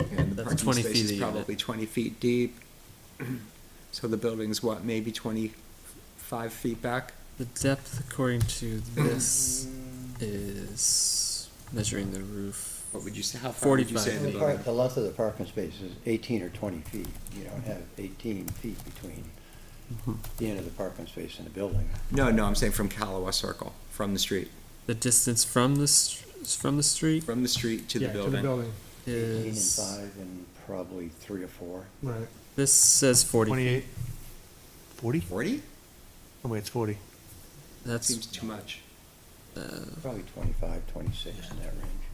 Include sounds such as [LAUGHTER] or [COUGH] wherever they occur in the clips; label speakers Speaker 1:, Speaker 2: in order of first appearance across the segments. Speaker 1: And the
Speaker 2: That's
Speaker 1: parking
Speaker 2: 20
Speaker 1: space
Speaker 2: feet
Speaker 1: is
Speaker 2: a unit.
Speaker 1: probably twenty feet deep. [CLEARS THROAT] So the building's what, maybe twenty-five feet back?
Speaker 2: The depth, according to this, is measuring the roof.
Speaker 1: What would you say, how far would you
Speaker 2: 45
Speaker 1: say the
Speaker 2: feet.
Speaker 3: The park,
Speaker 1: building?
Speaker 3: the length of the parking space is eighteen or twenty feet. You don't have eighteen feet between the end of the parking space and the building.
Speaker 1: No, no, I'm saying from Calawa Circle, from the street,
Speaker 2: The distance from the str- from the street
Speaker 1: from the street to the
Speaker 4: Yeah, To the
Speaker 1: building.
Speaker 4: building,
Speaker 3: Eighteen and
Speaker 2: is
Speaker 3: five and probably three or four.
Speaker 4: right.
Speaker 2: this says forty.
Speaker 4: Twenty-eight.
Speaker 5: Forty?
Speaker 1: Forty?
Speaker 5: Oh wait, it's forty.
Speaker 2: That's
Speaker 1: Seems too much.
Speaker 2: uh,
Speaker 3: Probably twenty-five, twenty-six in that range.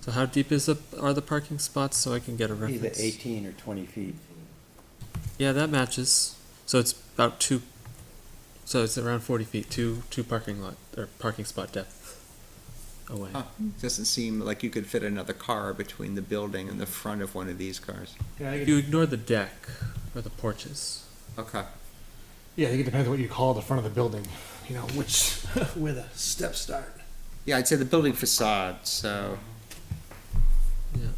Speaker 2: so. How deep is the are the parking spots so I can get a
Speaker 3: Either
Speaker 2: reference?
Speaker 3: eighteen or twenty feet.
Speaker 2: Yeah, that matches. So it's about two. So it's around forty feet, two two parking lot or parking spot depth away.
Speaker 1: Huh, doesn't seem like you could fit another car between the building and the front of one of these cars.
Speaker 4: Yeah, I think
Speaker 2: You
Speaker 4: it-
Speaker 2: ignore the deck or the porches.
Speaker 1: Okay,
Speaker 4: yeah, I think it depends what you call the front of the building, you know, which, [LAUGHS] where the steps start.
Speaker 1: yeah, I'd say the building facade, so,
Speaker 2: Yeah.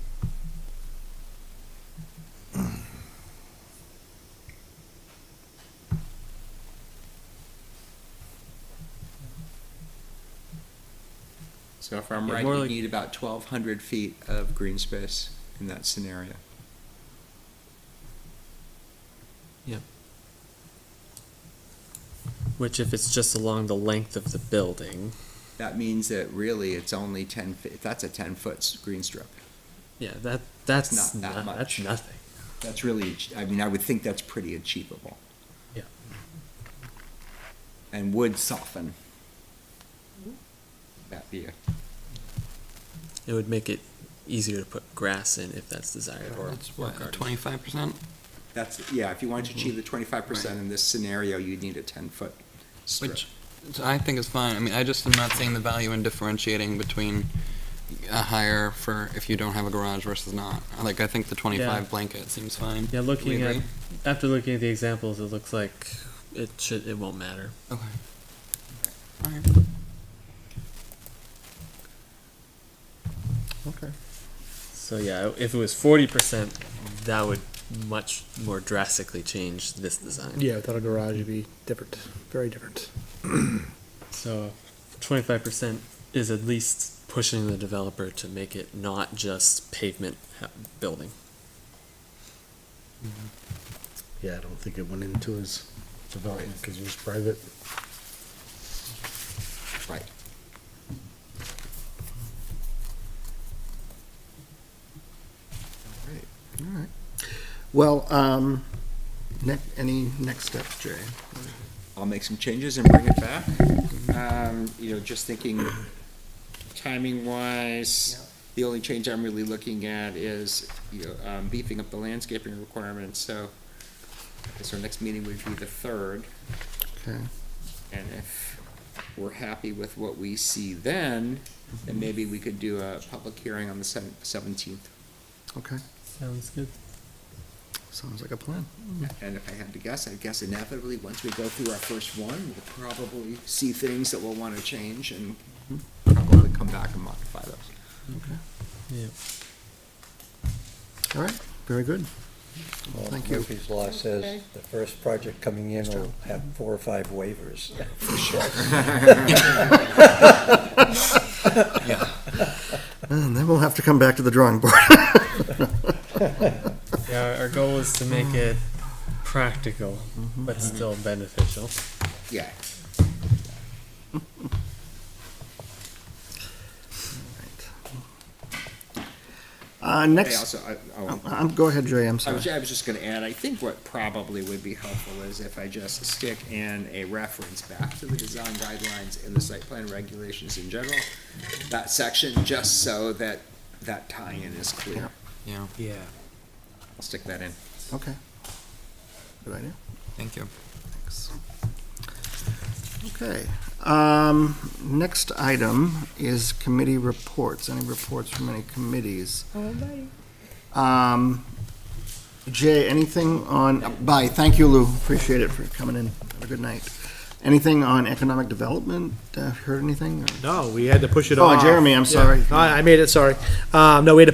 Speaker 1: so if I'm
Speaker 2: Yeah,
Speaker 1: right,
Speaker 2: more
Speaker 1: you
Speaker 2: like-
Speaker 1: need about twelve hundred feet of green space in that scenario.
Speaker 2: Which, if it's just along the length of the building,
Speaker 1: That means that really it's only ten feet, that's a ten-foot green strip.
Speaker 2: yeah, that that's
Speaker 1: not that
Speaker 2: no- That's
Speaker 1: much.
Speaker 2: nothing.
Speaker 1: That's really, ach- I mean, I would think that's pretty achievable.
Speaker 2: Yeah.
Speaker 1: And would soften that view.
Speaker 2: It would make it easier to put grass in if that's desired, or
Speaker 6: It's
Speaker 2: or
Speaker 6: what,
Speaker 2: garden.
Speaker 6: twenty-five percent?
Speaker 1: That's, yeah, if you wanted to achieve the twenty-five percent in this scenario, you'd need a ten-foot strip.
Speaker 6: Which so I think is fine. I mean, I just am not seeing the value in differentiating between a higher for if you don't have a garage versus not. Like, I think the
Speaker 2: Yeah.
Speaker 6: twenty-five blanket seems fine.
Speaker 2: Yeah, looking
Speaker 6: We
Speaker 2: at
Speaker 6: agree?
Speaker 2: after looking at the examples, it looks like it should it won't matter.
Speaker 6: Okay. All right.
Speaker 2: Okay. So yeah, if it was forty percent, that would much more drastically change this design.
Speaker 4: Yeah, without a garage, it'd be different, very different.
Speaker 2: So twenty-five percent is at least pushing the developer to make it not just pavement ha- building.
Speaker 7: Yeah, I don't think it went into his development because it was private.
Speaker 1: Right.
Speaker 7: Well, um, ne- any next step, Jay?
Speaker 1: I'll make some changes and bring it back. Um, you know, just thinking timing wise, the only change I'm really looking at is, you know, um, beefing up the landscaping requirements, so. I guess our next meeting would be the third.
Speaker 7: Okay.
Speaker 1: And if we're happy with what we see then, then maybe we could do a public hearing on the seventeenth.
Speaker 7: Okay,
Speaker 2: Sounds good.
Speaker 7: sounds like a plan.
Speaker 1: And if I had to guess, I'd guess inevitably, once we go through our first one, we'll probably see things that we'll wanna change and probably come back and modify those.
Speaker 2: Yeah.
Speaker 7: All right, very good.
Speaker 3: Well,
Speaker 7: Thank you.
Speaker 3: Murphy's Law says the first project coming in will have four or five waivers.
Speaker 7: And then we'll have to come back to the drawing board.
Speaker 2: Yeah, our goal is to make it practical, but still beneficial.
Speaker 1: Yeah,
Speaker 7: Uh,
Speaker 1: I
Speaker 7: next,
Speaker 1: also, I, oh,
Speaker 7: um, go ahead, Jay, I'm
Speaker 1: I was,
Speaker 7: sorry.
Speaker 1: I was just gonna add, I think what probably would be helpful is if I just stick in a reference back to the design guidelines and the site plan regulations in general, that section, just so that that tie-in is clear.
Speaker 6: Yeah,
Speaker 2: Yeah.
Speaker 1: I'll stick that in.
Speaker 7: Okay. Good idea.
Speaker 6: thank you.
Speaker 7: Thanks. Okay, um, next item is committee reports, any reports from any committees? Um, Jay, anything on, bye, thank you, Lou, appreciate it for coming in, have a good night. Anything on economic development, uh, heard anything? or-
Speaker 8: No, we had to push it
Speaker 7: Oh,
Speaker 8: off.
Speaker 7: Jeremy,
Speaker 8: Yeah.
Speaker 7: I'm sorry.
Speaker 8: I I made it, sorry. Um, No, we had to